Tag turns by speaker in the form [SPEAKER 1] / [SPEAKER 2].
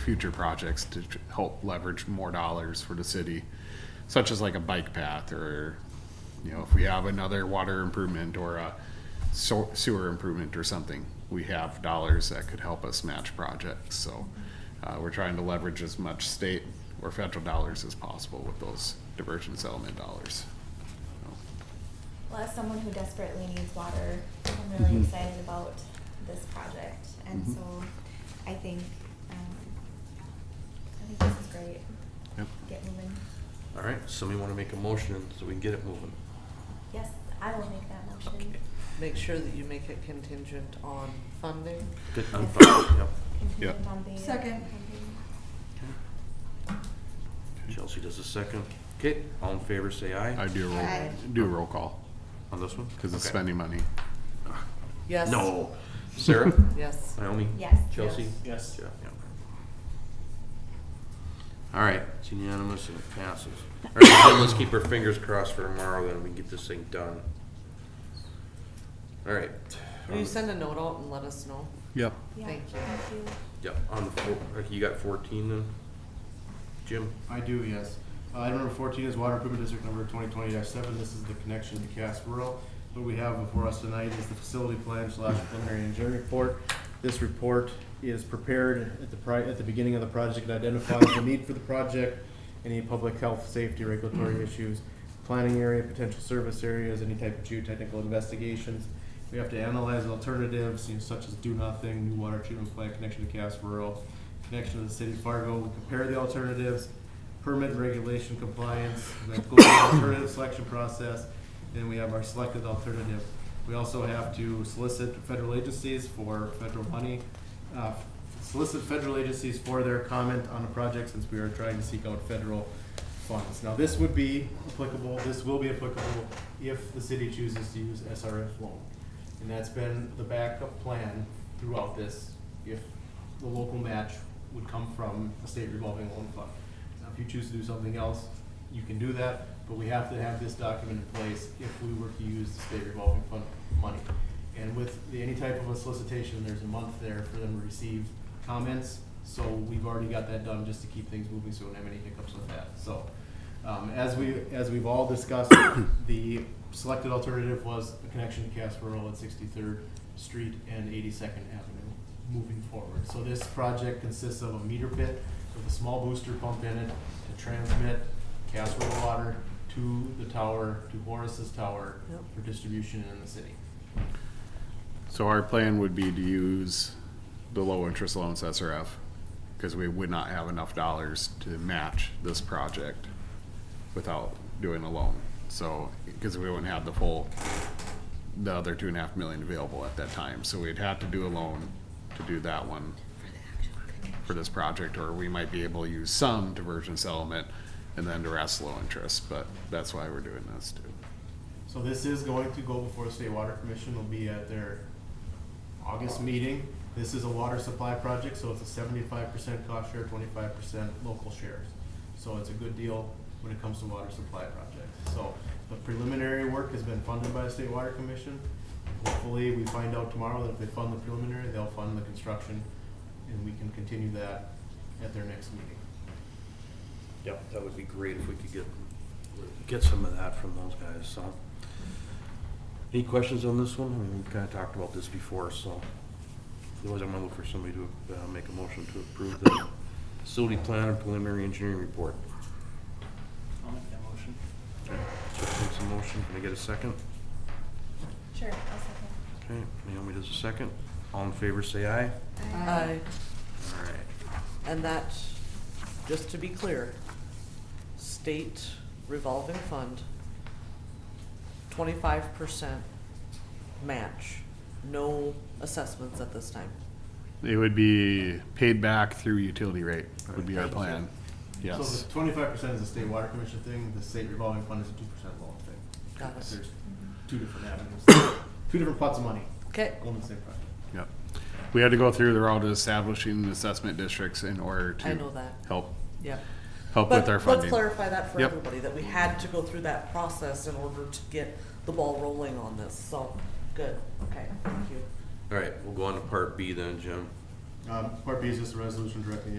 [SPEAKER 1] future projects to tr- help leverage more dollars for the city, such as like a bike path or, you know, if we have another water improvement or a so- sewer improvement or something, we have dollars that could help us match projects. So uh, we're trying to leverage as much state or federal dollars as possible with those diversion settlement dollars.
[SPEAKER 2] Well, as someone who desperately needs water, I'm really
[SPEAKER 1] Mhm.
[SPEAKER 2] excited about this project, and
[SPEAKER 1] Mhm.
[SPEAKER 2] so I think um, I think this is great.
[SPEAKER 1] Yep.
[SPEAKER 2] Get moving.
[SPEAKER 3] All right, somebody want to make a motion so we can get it moving?
[SPEAKER 2] Yes, I will make that motion.
[SPEAKER 3] Okay.
[SPEAKER 4] Make sure that you make it contingent on funding.
[SPEAKER 3] Good,
[SPEAKER 2] I'm
[SPEAKER 3] I'm
[SPEAKER 2] fine,
[SPEAKER 3] yep.
[SPEAKER 2] Contingent
[SPEAKER 1] Yep.
[SPEAKER 2] on being-
[SPEAKER 5] Second.
[SPEAKER 3] Chelsea does a second. Okay, all in favor, say
[SPEAKER 1] I
[SPEAKER 3] aye.
[SPEAKER 1] do a roll,
[SPEAKER 5] Aye.
[SPEAKER 1] do a roll call
[SPEAKER 3] On this one?
[SPEAKER 1] because it's
[SPEAKER 3] Okay.
[SPEAKER 1] spending money.
[SPEAKER 4] Yes.
[SPEAKER 3] No. Sarah?
[SPEAKER 4] Yes.
[SPEAKER 3] Naomi?
[SPEAKER 2] Yes.
[SPEAKER 3] Chelsea?
[SPEAKER 6] Yes.
[SPEAKER 3] Jeff, yep. All right, it's unanimous and it passes. All right, then let's keep our fingers crossed for tomorrow, then we can get this thing done. All right.
[SPEAKER 4] Will you send a note out and let us know?
[SPEAKER 1] Yep.
[SPEAKER 2] Yeah,
[SPEAKER 4] Thank you.
[SPEAKER 2] Thank you.
[SPEAKER 3] Yep, on the, four- you got fourteen then? Jim?
[SPEAKER 6] I do, yes. Uh, Item number fourteen is Water Improvement District number twenty twenty seven. This is the connection to Cass Rural. What we have before us tonight is the facility plan slash preliminary engineering report. This report is prepared at the pri, at the beginning of the project. It identifies the need for the project, any public health, safety, regulatory issues, planning area, potential service areas, any type of geotechnical investigations. We have to analyze alternatives, you know, such as do nothing, new water treatment plant connection to Cass Rural, connection to the city of Fargo, We compare the alternatives, permit and regulation compliance, then go to the alternative selection process, and we have our selected alternative. We also have to solicit federal agencies for federal money, uh, solicit federal agencies for their comment on a project since we are trying to seek out federal funds. Now, this would be applicable, this will be applicable if the city chooses to use SRF loan. And that's been the backup plan throughout this, if the local match would come from a state revolving loan fund. Now, if you choose to do something else, you can do that, but we have to have this document in place if we were to use the state revolving fund money. And with the, any type of a solicitation, there's a month there for them to receive comments, so we've already got that done just to keep things moving, so we don't have any hiccups with that, so. Um, as we, as we've all discussed, the selected alternative was a connection to Cass Rural at Sixty-third Street and Eighty-second Avenue moving forward. So this project consists of a meter pit with a small booster pump in it to transmit Cass Rural water to the tower, to Horace's tower
[SPEAKER 4] Yep.
[SPEAKER 6] for distribution in the city.
[SPEAKER 1] So our plan would be to use the low interest loans SRF, because we would not have enough dollars to match this project without doing a loan. So, because we wouldn't have the full, the other two and a half million available at that time, so we'd have to do a loan to do that one for this project, or we might be able to use some diversion settlement and then the rest low interest, but that's why we're doing this too.
[SPEAKER 6] So this is going to go before the State Water Commission, will be at their August meeting. This is a water supply project, so it's a seventy-five percent cost share, twenty-five percent local shares. So it's a good deal when it comes to water supply projects. So the preliminary work has been funded by the State Water Commission. Hopefully, we find out tomorrow that if they fund the preliminary, they'll fund the construction, and we can continue that at their next meeting.
[SPEAKER 3] Yep, that would be great if we could get, get some of that from those guys, so. Any questions on this one? I mean, we've kinda talked about this before, so. Otherwise, I'm gonna look for somebody to, uh, make a motion to approve the facility plan and preliminary engineering report.
[SPEAKER 7] I'll make that motion.
[SPEAKER 3] Jeff makes a motion, can I get a second?
[SPEAKER 2] Sure, I'll second.
[SPEAKER 3] Okay, Naomi does a second. All in favor, say aye.
[SPEAKER 4] Uh,
[SPEAKER 3] All right.
[SPEAKER 4] and that, just to be clear, state revolving fund, twenty-five percent match, no assessments at this time.
[SPEAKER 1] It would be paid back through utility rate, would be our plan,
[SPEAKER 6] So
[SPEAKER 1] yes.
[SPEAKER 6] the twenty-five percent is the state water commission thing, the state revolving fund is a two percent loan thing.
[SPEAKER 4] Got it.
[SPEAKER 6] There's two different avenues, two different pots of money
[SPEAKER 4] Okay,
[SPEAKER 6] going to the same project.
[SPEAKER 1] Yep. We had to go through the route of establishing the assessment districts in order
[SPEAKER 4] I
[SPEAKER 1] to
[SPEAKER 4] know that,
[SPEAKER 1] help,
[SPEAKER 4] yeah.
[SPEAKER 1] help with
[SPEAKER 4] But
[SPEAKER 1] our
[SPEAKER 4] let's
[SPEAKER 1] funding.
[SPEAKER 4] clarify that for
[SPEAKER 1] Yep.
[SPEAKER 4] everybody, that we had to go through that process in order to get the ball rolling on this, so, good, okay, thank you.
[SPEAKER 3] All right, we'll go on to part B then, Jim.
[SPEAKER 6] Um, part B is just a resolution directing the